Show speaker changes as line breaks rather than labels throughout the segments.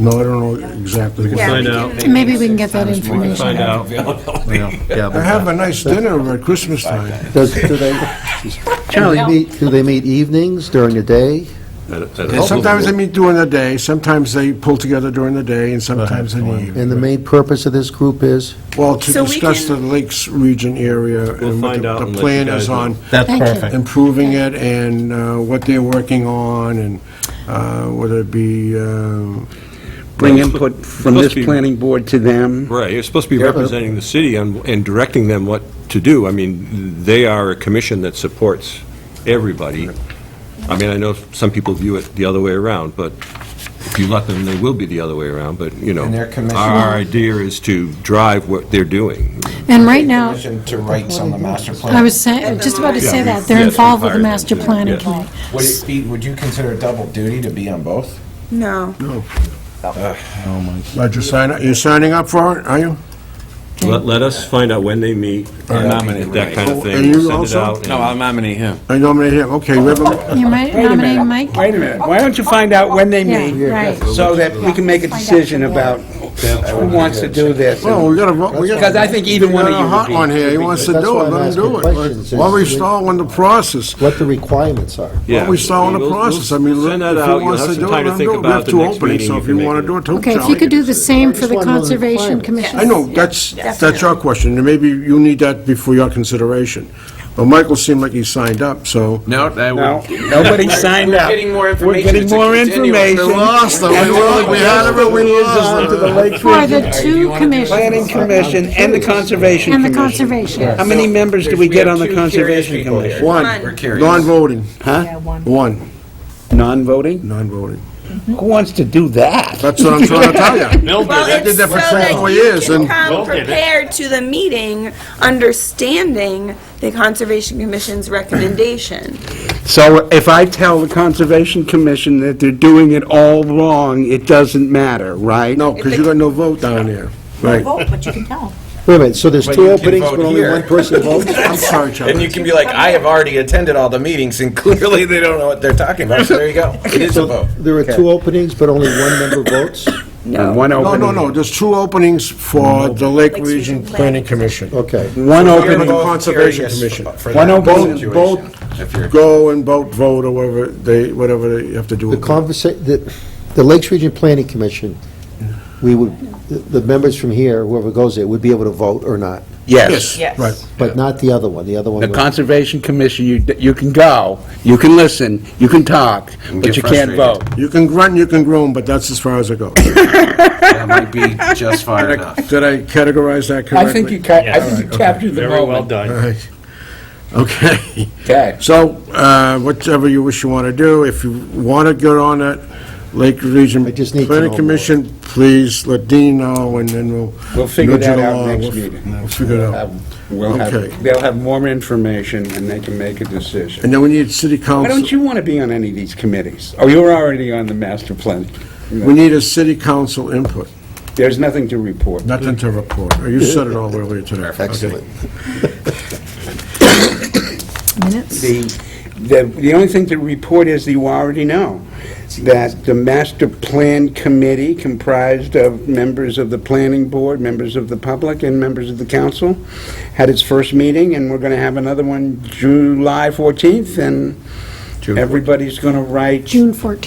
No, I don't know exactly.
We can
what-
find out.
Maybe we can get that
We can
information.
find out.
Yeah, yeah,
I
but-
have a nice dinner at Christmas time.
Does, do they, do they meet, do they meet evenings during the day?
And sometimes they meet during the day, sometimes they pull together during the day, and sometimes in the evening.
And the main purpose of this group is?
Well, to
So we
discuss the
can-
Lakes Region area. and
We'll
what
find
the-
out and
The
let you
plan
guys
is
know.
on
That's
Thank you.
perfect.
improving it and uh, what they're working on, and uh, whether it be, um,
Bring input from
Must
this
be-
planning board to them.
Right, you're supposed to be representing the city and and directing them what to do. I mean, they are a commission that supports everybody. I mean, I know some people view it the other way around, but if you let them, they will be the other way around, but, you know.
And their commission-
Our idea is to drive what they're doing.
And right now,
Permission To write some of the master plan.
I was saying, just about to say that, they're involved with the master planning committee.
Would it be, would you consider it double duty to be on both?
No.
Roger, sign up- you're signing up for it, are you?
Let, let us find out when they meet. and
nominate.
That kind of
Are
thing.
you
Send it
also?
out and-
No, I'll nominate him.
I nominate him, okay, we have a-
You might
Wait a
nominate
minute.
Mike?
Wait a minute, why don't you find out when they meet,
Yeah, right.
so that we can make a decision about who wants to do this?
well, we got to, we got
Because I think either
we
one
got
of
a
you
hot
would
one
be.
here, he wants to
That's
do
why
it,
I'm
let him do
asking questions,
it. Why are we
is-
stalling the process?
What the requirements are?
Yeah.
Well, we saw in the
We'll- we'll
process, I mean, if
send that out.
he
You'll
wants
have
to
some
do it,
time to
let him
think
do it. We
about
have
the
two
next
openings,
meeting,
so
you
if
can
you
make
want
it.
to do it, too.
Okay, if
Charlie.
you could do the same for the
Just one more
Conservation
requirement.
Commission.
I know, that's, that's our question, and maybe you need that before your consideration. But Michael seemed like he signed up, so.
No, that
No,
would.
nobody signed up.
getting more
We're
information.
getting
It's a
more
continuum.
information.
them, we lost, we had them, we
On to the Lake
For
Region
the two
Planning
commissions
Commission and the Conservation
and the
Commission.
conservation.
How many members do
We
we get
have
on the
two curious
Conservation
people here.
Commission?
One,
We're curious.
non-voting,
Huh?
one,
Non-voting?
non-voting.
Who wants to do that?
That's what I'm trying to tell you.
Well,
did
it's so
that for
that
24
you
years,
can
and-
come prepared to the meeting, understanding the Conservation Commission's recommendation.
So if I tell the Conservation Commission that they're doing it all wrong, it doesn't matter, right?
No, because you got no vote down there. Right.
Wait a minute, so there's
But
two
you can
openings,
vote
but only
here.
one person votes?
I'm sorry,
And you
Charlie.
can be like, I have already attended all the meetings, and clearly they don't know what they're talking about, so there you go. It is a vote.
There are two openings, but only one member votes?
No. One
No,
opening.
no, no, there's two openings for the Lake
Lakes Region
Region Planning Commission.
Okay.
One
Mm-hmm. We're
the
opening,
both
Conservation
curious
Commission.
for
Why
that
don't both-
situation,
both
if you're-
Go and vote, vote, or whatever they, whatever they have to do.
The conversa, the, the Lakes Region Planning Commission, we would, the the members from here, whoever goes there, would be able to vote or not,
Yes.
Right.
but not the other one, the other one.
the
would-
Conservation Commission, you, you can go, you can listen, you can talk, but
get
you can't
frustrated.
vote.
You can grunt, you can groan, but that's as far as it goes.
That might be just far
Did
enough.
I did I categorize that correctly?
I think you ca, I think you captured the
Very well
moment.
done.
All right. Okay.
Okay.
So, uh, whatever you wish you want to do, if you want to go on that Lake Region
I just need to know
Planning
more.
Commission, please let Dean know, and then we'll.
We'll figure
nudge it
that out
along.
next
We'll f-
meeting.
We'll figure it out.
We'll
Okay.
have, they'll have more information and they can make a
And
decision.
then we need city
Why
council,
don't you want to be on any of these committees? Oh, you're already on the master plan.
we need a city council input,
There's nothing to report.
nothing to report. Oh, You said it all earlier today.
Excellent.
Minutes?
The, the, the only thing to report is you already know, that the master plan committee comprised of members of the planning board, members of the public, and members of the council, had its first meeting, and we're gonna have another one July fourteenth, and everybody's gonna write.
June 14th,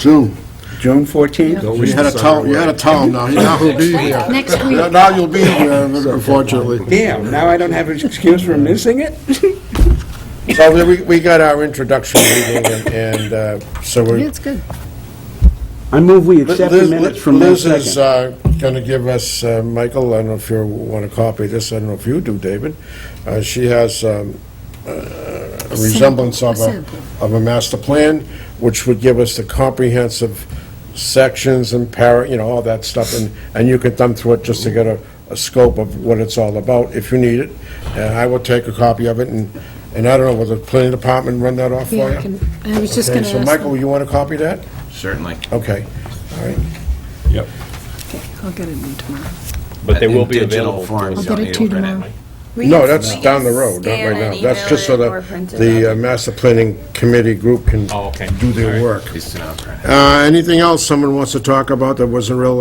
June.
June fourteenth?
You had a town, you had a town now, now who'll be here.
next week.
Now- Now you'll be here, unfortunately.
Damn, now I don't have an excuse for missing it?
So we- we, we got our introduction meeting, and- and uh, so
Yeah,
we're...
it's good.
I move we
Liz
accept the minutes from May
Liz is
second.
going to give us, uh, Michael, I don't know if you want to copy this, I don't know if you do, David. Uh, She has um, uh, a resemblance of a,
Sample.
of a master plan, which would give us the comprehensive sections and para, you know, all that stuff, and, and you could thumb through it just to get a, a scope of what it's all about, if you need it. And I will take a copy of it, and, and I don't know, will the planning department run that off for you?
Yeah, I can- I was just
Okay,
going to
So
ask.
Michael, you want to copy that?
Certainly.
Okay, all right.
I'll get it in tomorrow.
But they will be
In digital
available.
form,
I'll
so
get it
you
to you
open
tomorrow.
We
No,
can-
that's
we
down
can
the road, not
scan
right now.
and
That's
email
just so
it or
that
print it
the
out.
uh, master planning committee group can
Oh, okay.
do their
All right.
work.
At least to know.
Uh, Anything else someone wants to talk about that wasn't real